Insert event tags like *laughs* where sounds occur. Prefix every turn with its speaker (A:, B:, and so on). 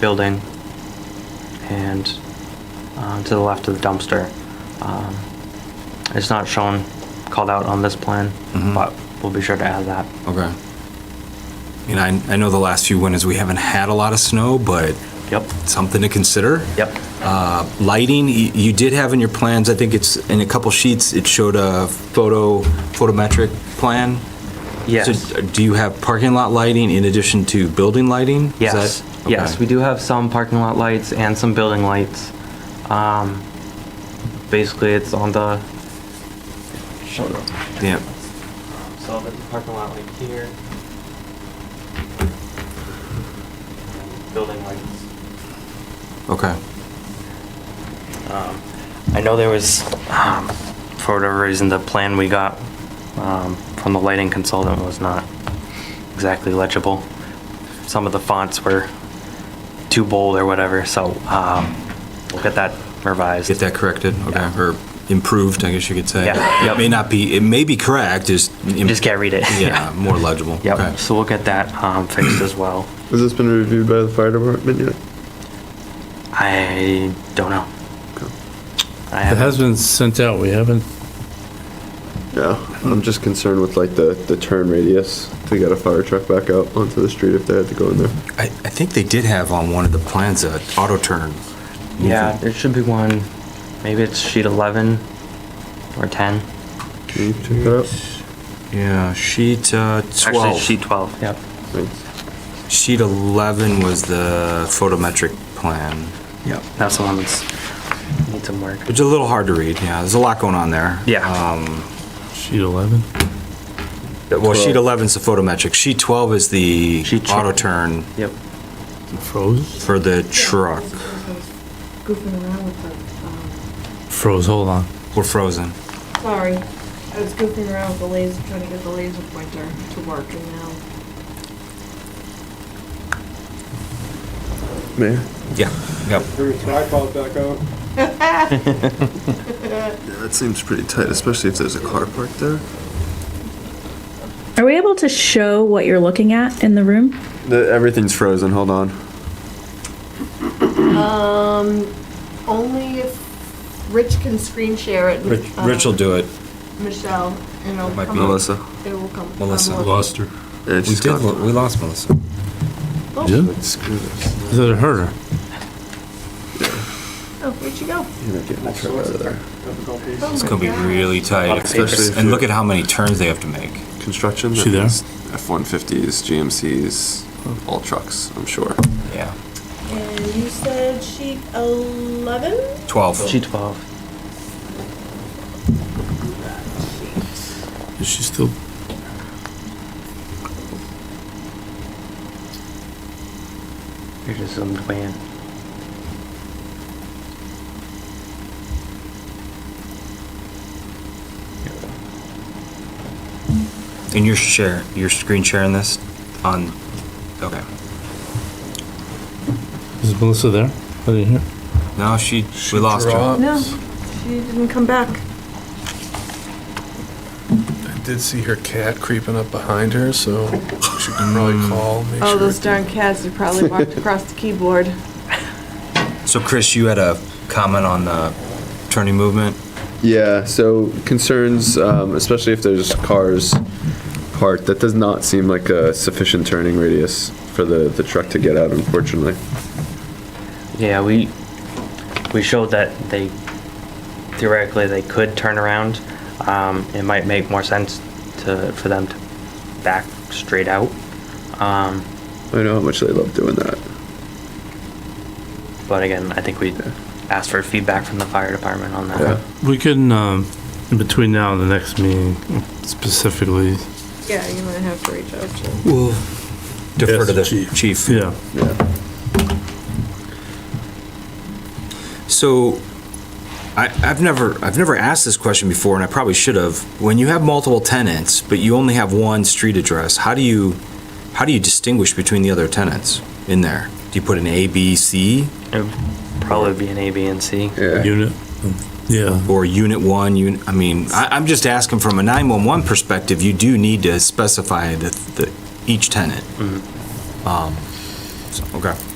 A: building and um, to the left of the dumpster. Um, It's not shown, called out on this plan,
B: Mhm.
A: but we'll be sure to add that.
B: Okay. And I, I know the last few winters, we haven't had a lot of snow, but
A: Yep,
B: something to consider.
A: yep,
B: Uh, Lighting, y- you did have in your plans, I think it's, in a couple sheets, it showed a photo, photometric plan.
A: yes.
B: So uh, do you have parking lot lighting in addition to building lighting? Is
A: Yes,
B: that-
A: yes,
B: okay.
A: we do have some parking lot lights and some building lights. Um, Basically, it's on the.
B: Yeah,
A: So the parking lot like here. Building lights.
B: okay.
A: Um, I know there was, um, for whatever reason, the plan we got um, from the lighting consultant was not exactly legible. Some of the fonts were too bold or whatever, so um, we'll get that revised.
B: Get that corrected, okay,
A: Yeah.
B: or improved, I guess you could say.
A: Yeah,
B: It
A: yep.
B: may not be, it may be correct, just.
A: Just can't read it.
B: Yeah, more legible. Okay.
A: *laughs* Yep, so we'll get that um, fixed as well.
C: Has this been reviewed by the fire department yet?
A: I don't know. I
D: It
A: haven't,
D: has been sent out, we haven't,
C: No, I'm just concerned with like the, the turn radius to get a fire truck back out onto the street if they had to go in there.
B: I, I think they did have on one of the plans a auto turn.
A: yeah, there should be one, maybe it's sheet 11 or 10.
C: Can you check that out?
B: Yeah, sheet uh,
A: Actually,
B: 12.
A: sheet 12, yep.
C: Thanks.
B: Sheet 11 was the photometric plan.
A: Yep. That's the one that's, needs some work.
B: It's a little hard to read, yeah, there's a lot going on there.
A: Yeah.
B: Um,
D: sheet 11?
B: Well, sheet
C: 12.
B: 11 is the photometric, sheet 12 is the
A: Sheet tw-
B: auto turn
A: Yep.
D: Froze?
B: for the truck.
E: Goofing around with the,
D: Froze, hold on.
B: We're frozen.
E: um, sorry, I was goofing around with the laser, trying to get the laser pointer to work, and now
C: Mayor?
B: Yeah, yep.
C: Yeah, that seems pretty tight, especially if there's a car parked there.
F: Are we able to show what you're looking at in the room?
C: The, everything's frozen, hold on.
E: only if Rich can screen share it. with, uh,
B: Rich will do it.
E: Michelle, and it'll
B: Might
E: come.
B: be
E: up.
C: Melissa.
E: It will come.
B: Melissa.
E: unlocked.
D: Lost her.
C: Yeah,
B: We did, lo- we lost Melissa.
E: Oh,
D: Yeah?
C: Like, screw this.
D: Is it her?
E: Oh, where'd she go? Oh
C: You're not getting the truck out of there.
B: It's gonna be really tight.
C: Especially if
B: And
C: you-
B: look at how many turns they have to make.
C: Construction.
D: She there?
C: F-150s, GMCs, all trucks, I'm sure.
B: Yeah.
E: And you said sheet eleven?
B: 12.
A: Sheet 12.
D: Is she still?
A: You're just zoomed way in.
B: And you're share, you're screen sharing this on, okay.
D: Is Melissa there? I didn't hear.
B: No, she, we lost her.
E: No, she didn't come back.
G: I did see her cat creeping up behind her, so she can probably
B: Hmm.
G: call, make
E: Oh,
G: sure.
E: those darn cats, they
B: *laughs*
E: probably walked across the keyboard.
B: So Chris, you had a comment on the turning movement?
C: Yeah, so concerns, um, especially if there's cars parked, that does not seem like a sufficient turning radius for the, the truck to get out, unfortunately.
A: Yeah, we, we showed that they, theoretically, they could turn around. Um, it might make more sense to, for them to back straight out. Um,
C: I know how much they love doing that.
A: but again, I think we asked for feedback from the fire department on that.
C: Yeah.
D: We can, um, in between now and the next meeting specifically,
E: Yeah, you might have to reach out to.
B: We'll defer to the
D: Yes, chief.
B: chief.
D: yeah.
C: Yeah.
B: So I, I've never, I've never asked this question before and I probably should have. When you have multiple tenants, but you only have one street address, how do you, how do you distinguish between the other tenants in there? Do you put an A, B, C?
A: It would probably be an A, B, and C.
C: Yeah.
D: Unit, yeah.
B: or unit one, un, I mean, I, I'm just asking from a 911 perspective, you do need to specify the, the, each tenant. Um, so, okay.